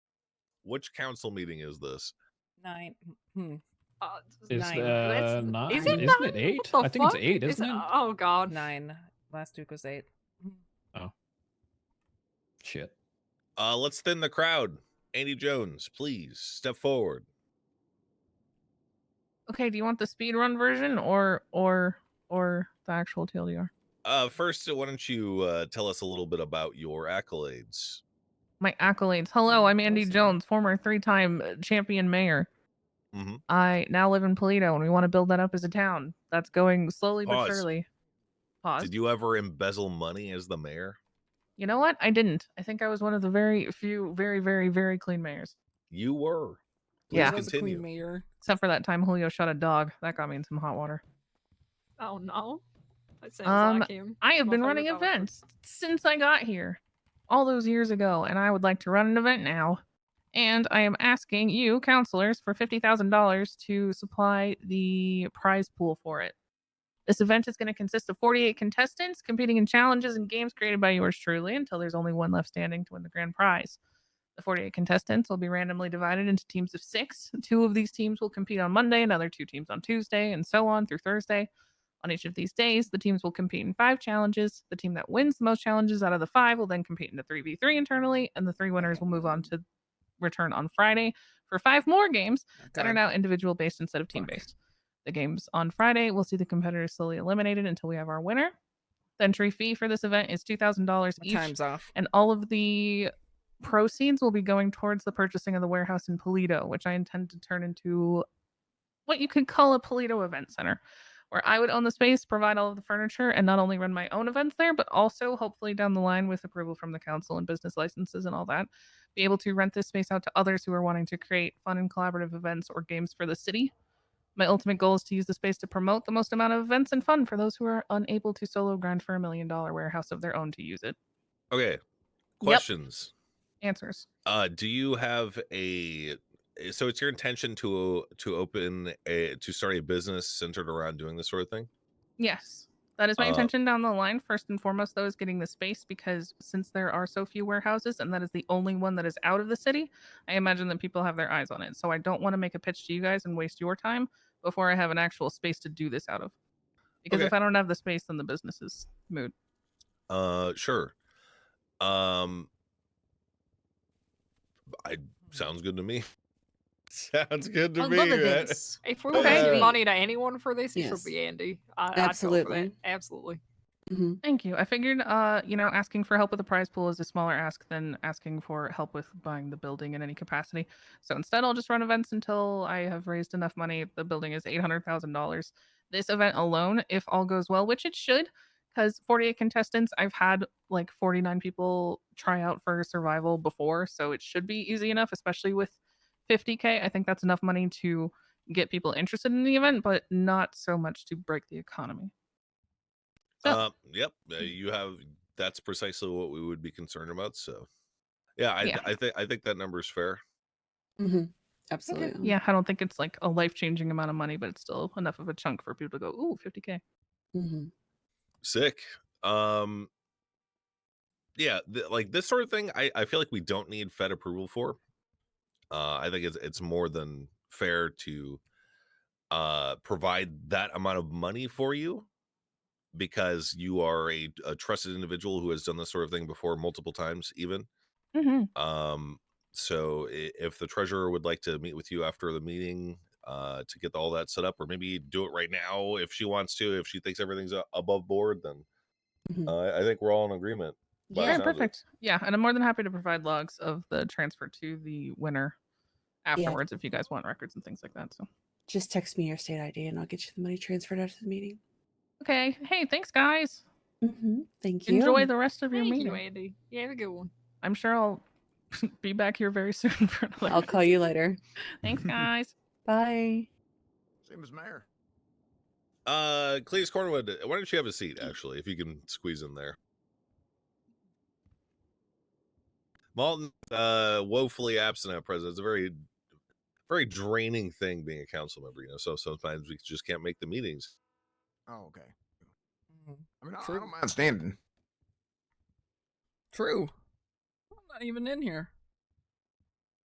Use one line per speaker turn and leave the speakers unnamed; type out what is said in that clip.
Which council meeting is this?
Nine. Hmm.
Uh,
It's
Nine.
uh,
Let's-
nine.
is
Is
it
not it
nine?
eight?
What the
I think it's
fuck?
eight,
Is
isn't
it-
it?
Oh god.
Nine. Last week was eight.
Shit.
Uh, let's thin the crowd. Andy Jones, please step forward.
Okay, do you want the speedrun version or or or the actual TLDR?
Uh, first, why don't you uh, tell us a little bit about your accolades?
My accolades.
Mm,
Hello, I'm Andy
Awesome.
Jones, former three-time uh, champion mayor.
Mhm.
I now live in Polito, and we want to build that up as a town. That's going slowly
Pause.
but surely. Pause.
Did you ever embezzle money as the mayor?
You know what? I didn't. I think I was one of the very few, very, very, very clean mayors.
You were. Please
Yeah.
Was a queen
Continue.
mayor.
Except for that time Julio shot a dog. That got me in some hot water.
Oh no. That sounds
Um,
like him.
I have been
Motherfucker
running
got one.
events since I got here, all those years ago, and I would like to run an event now. And I am asking you, counselors, for $50,000 to supply the prize pool for it. This event is going to consist of 48 contestants competing in challenges and games created by yours truly until there's only one left standing to win the grand prize. The 48 contestants will be randomly divided into teams of six. Two of these teams will compete on Monday, another two teams on Tuesday, and so on through Thursday. On each of these days, the teams will compete in five challenges. The team that wins the most challenges out of the five will then compete in the 3v3 internally, and the three winners will move on to return on Friday for five more games that are
Oh, God.
now individual based instead of team
Fuck.
based. The games on Friday will see the competitors slowly eliminated until we have our winner. The entry fee for this event is $2,000
My
each
time's off.
and all of the proceeds will be going towards the purchasing of the warehouse in Polito, which I intend to turn into what you could call a Polito event center, where I would own the space, provide all of the furniture, and not only run my own events there, but also hopefully down the line with approval from the council and business licenses and all that, be able to rent this space out to others who are wanting to create fun and collaborative events or games for the city. My ultimate goal is to use the space to promote the most amount of events and fun for those who are unable to solo grind for a million dollar warehouse of their own to use it.
Okay. Questions.
Answers.
Uh, do you have a so it's your intention to to open a to start a business centered around doing this sort of thing?
Yes. That is my
Uh,
intention down the line. First and foremost, though, is getting the space because since there are so few warehouses and that is the only one that is out of the city, I imagine that people have their eyes on it. So I don't want to make a pitch to you guys and waste your time before I have an actual space to do this out of. Because
Okay.
if I don't have the space, then the business is moot.
Uh, sure. Um, I sounds good to me. sounds good to
Hmm. I
me.
love
right?
this.
If we were
Okay.
giving money to anyone for this, it
Yes.
should be Andy. I, I'd go for that.
Absolutely.
Absolutely.
hmm
Thank you. I figured, uh, you know, asking for help with the prize pool is a smaller ask than asking for help with buying the building in any capacity. So instead, I'll just run events until I have raised enough money. The building is eight hundred thousand dollars. This event alone, if all goes well, which it should, because forty-eight contestants. I've had like forty-nine people try out for survival before, so it should be easy enough. Especially with fifty k, I think that's enough money to get people interested in the event, but not so much to break the economy. So-
Uh, yep. uh,
Hmm.
You have that's precisely what we would be concerned about. So, yeah, I, th-
Yeah.
I think I think that number is fair.
hmm
Okay,
Absolutely.
Yeah, I don't think it's like a life changing amount of money, but it's still enough of a chunk for people to go, ooh, 50K.
hmm
sick um yeah th- like this sort of thing I, I feel like we don't need fed approval for uh i think it's it's more than fair to uh provide that amount of money for you because you are a, a trusted individual who has done this sort of thing before multiple times even
Mm-hmm.
um so i- if the treasurer would like to meet with you after the meeting uh to get all that set up or maybe do it right now if she wants to if she thinks everything's a- above board then
Mhm.
uh, i think we're all in agreement by the
Mm-hmm. Yeah,
sounds of it.
perfect. Yeah, and I'm more than happy to provide logs of the transfer to the winner afterwards if you guys want records and things like that. So,
Just text me your state ID and I'll get you the money transferred after the meeting.
okay. Hey, thanks, guys.
hmm Thank you.
Mm-hmm. Enjoy the rest of your
Thank
meeting.
you, Andy. Yeah, have a good one.
I'm sure I'll be back here very soon for another.
I'll call you later.
Thanks, guys.
Bye.
Same as mayor.
uh cleese cornwood uh, why don't you have a seat actually if you can squeeze in there malton uh woefully absent at present it's a very very draining thing being a council member you know so sometimes we just can't make the meetings
Oh, okay.
Mhm.
I mean, I, I
True.
don't mind standing.
True. I'm not even in here.